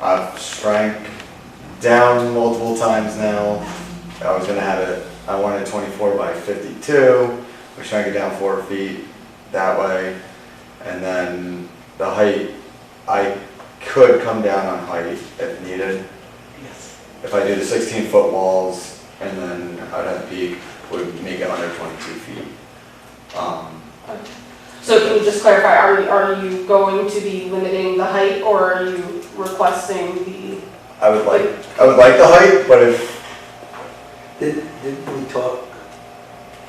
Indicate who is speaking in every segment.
Speaker 1: I've shrank down multiple times now. I was gonna have it, I wanted twenty-four by fifty-two, we shrank it down four feet that way. And then the height, I could come down on height if needed. If I do the sixteen-foot walls and then I'd have peak, would make it under twenty-two feet. Um,
Speaker 2: So can you just clarify, are you, are you going to be limiting the height or are you requesting the,
Speaker 1: I would like, I would like the height, but if,
Speaker 3: Did, didn't we talk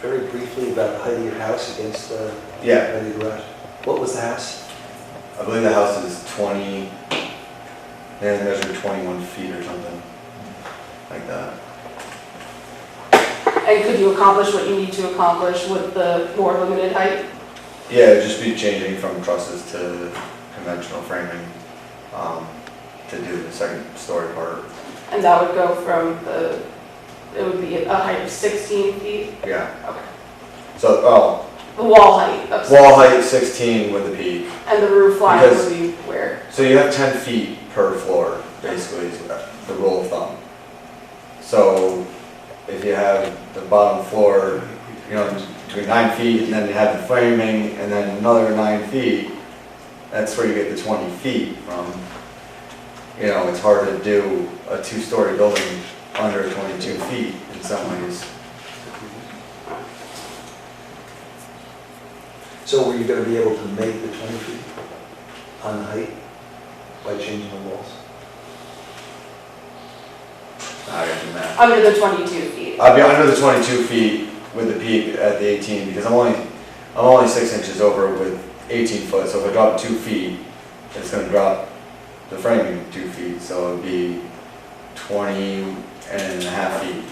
Speaker 3: very briefly about the height of your house against the?
Speaker 1: Yeah.
Speaker 3: Height of the garage? What was the house?
Speaker 1: I believe the house is twenty, they had measured twenty-one feet or something, like that.
Speaker 2: and could you accomplish what you need to accomplish with the more limited height?
Speaker 1: Yeah, it'd just be changing from trusses to conventional framing, um, to do the second story part,
Speaker 2: And that would go from the, it would be a height of 16 feet?
Speaker 1: yeah.
Speaker 2: Okay.
Speaker 1: So, oh,
Speaker 2: The wall height of 16?
Speaker 1: wall height sixteen with the peak,
Speaker 2: And the roof line
Speaker 1: Because-
Speaker 2: would be where?
Speaker 1: so you have ten feet per floor, basically, is the rule of thumb. So, if you have the bottom floor you know, between nine feet, and then you have the framing, and then another nine feet, that's where you get the twenty feet from. You know, it's hard to do a two-story building under twenty-two feet in some ways.
Speaker 3: So were you gonna be able to make the twenty feet on the height by changing the walls?
Speaker 1: I don't do that.
Speaker 2: Under the 22 feet?
Speaker 1: I'd be under the twenty-two feet with the peak at the eighteen, because I'm only, I'm only six inches over with eighteen foot, so if I drop two feet, it's gonna drop the framing two feet, so it'd be twenty and a half feet.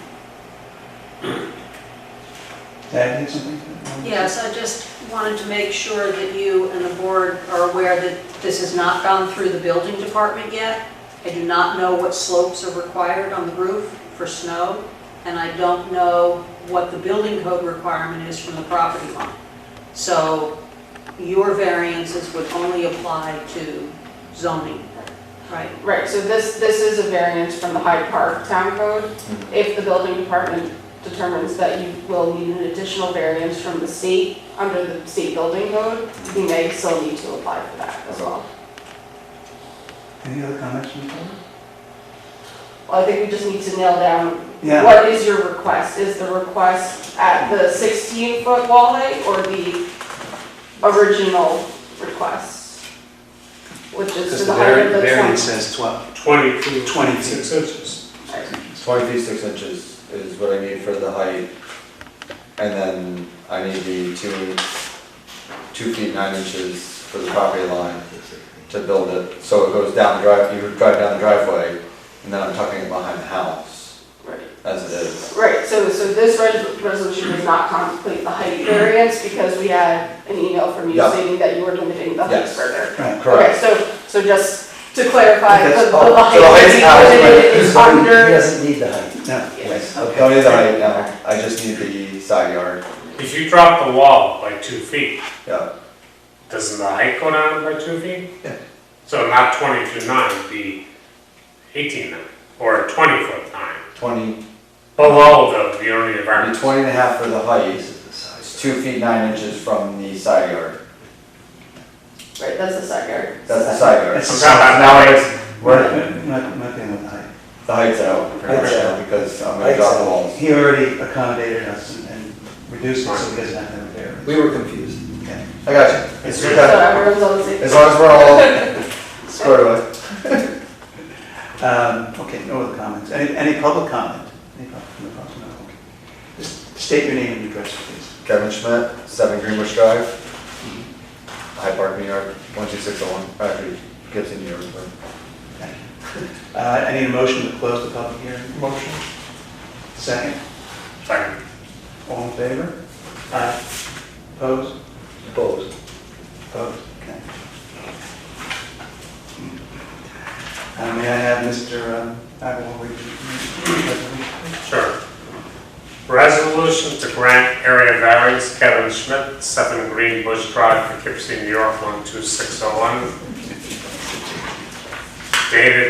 Speaker 4: Dad did something?
Speaker 5: Yes, I just wanted to make sure that you and the board are aware that this has not gone through the building department yet. I do not know what slopes are required on the roof for snow, and I don't know what the building code requirement is from the property line. So your variances would only apply to zoning, right?
Speaker 2: Right, so this, this is a variance from the Hyde Park Town Code.
Speaker 6: Mm-hmm.
Speaker 2: If the building department determines that you will need an additional variance from the state, under the state building code, you may still need to apply for that as well.
Speaker 4: Any other comments from the board?
Speaker 2: Well, I think we just need to nail down,
Speaker 4: Yeah.
Speaker 2: what is your request? Is the request at the 16-foot wall height or the original request? Which is to
Speaker 6: Because
Speaker 2: the
Speaker 6: the
Speaker 2: height of
Speaker 6: vari-
Speaker 2: the 20?
Speaker 6: variance says 12,
Speaker 7: 20 feet.
Speaker 6: 20 feet.
Speaker 7: Six inches.
Speaker 1: Twenty feet, six inches is what I need for the height, and then I need the two, two feet, nine inches for the property line to build it, so it goes down the drive, you drive down the driveway, and then I'm tucking it behind the house,
Speaker 2: Right.
Speaker 1: as it is.
Speaker 2: Right, so, so this res- resolution does not contemplate the height variance because we had an email from you
Speaker 1: Yeah.
Speaker 2: stating that you were limiting the height
Speaker 1: Yes.
Speaker 2: further.
Speaker 4: Right.
Speaker 1: Correct.
Speaker 2: Okay, so, so just to clarify, the,
Speaker 1: That's-
Speaker 2: the
Speaker 1: oh, so
Speaker 2: height
Speaker 1: the
Speaker 2: is
Speaker 1: height's out,
Speaker 2: limited
Speaker 1: but-
Speaker 2: is
Speaker 3: So he- He
Speaker 2: under,
Speaker 3: doesn't need the height.
Speaker 4: No.
Speaker 2: yes,
Speaker 1: Don't need the height now, I just need the side yard,
Speaker 7: If you drop the wall by two feet,
Speaker 1: yeah,
Speaker 7: doesn't the height go down by two feet?
Speaker 1: Yeah.
Speaker 7: So not 22 nine, it'd be 18 nine, or 20 foot nine,
Speaker 1: twenty,
Speaker 7: below the, the only
Speaker 1: it'd be
Speaker 7: variance.
Speaker 1: twenty and a half for the height,
Speaker 3: This is the
Speaker 1: it's
Speaker 3: size.
Speaker 1: two feet, nine inches from the side yard,
Speaker 2: right, that's the side yard.
Speaker 1: that's the side yard.
Speaker 4: That's-
Speaker 7: I'm talking about now, it's-
Speaker 1: We're-
Speaker 4: Not, nothing with height.
Speaker 1: The height's out, pretty much,
Speaker 3: Height's out.
Speaker 1: because I'm gonna drop the walls.
Speaker 4: He already accommodated us and- and reduced it so he doesn't have to have a variance.
Speaker 3: We were confused.
Speaker 1: I got you. It's
Speaker 2: So
Speaker 1: okay.
Speaker 2: everyone's on the same.
Speaker 1: As long as we're all squared away.
Speaker 4: Um, Okay, no other comments. Any, any public comment? Any public, no public, no, okay. Just state your name and address, please.
Speaker 1: Kevin Schmidt, seven Greenbush Drive, Hyde Park, New York, one two six oh one, actually, Gibson, New York. but-
Speaker 4: Thank you. Uh, I need a motion to close the public hearing. Motion. Second,
Speaker 7: Sorry.
Speaker 4: all in favor? Aye. Opposed?
Speaker 3: Opposed.
Speaker 4: Opposed? Okay. Uh, May I have Mr. Agawam read the resolution?
Speaker 7: Sure. Resolution to grant area variance Kevin Schmidt, 7 Green Bush oh Drive, Poughkeepsie, New York, 12601. Dated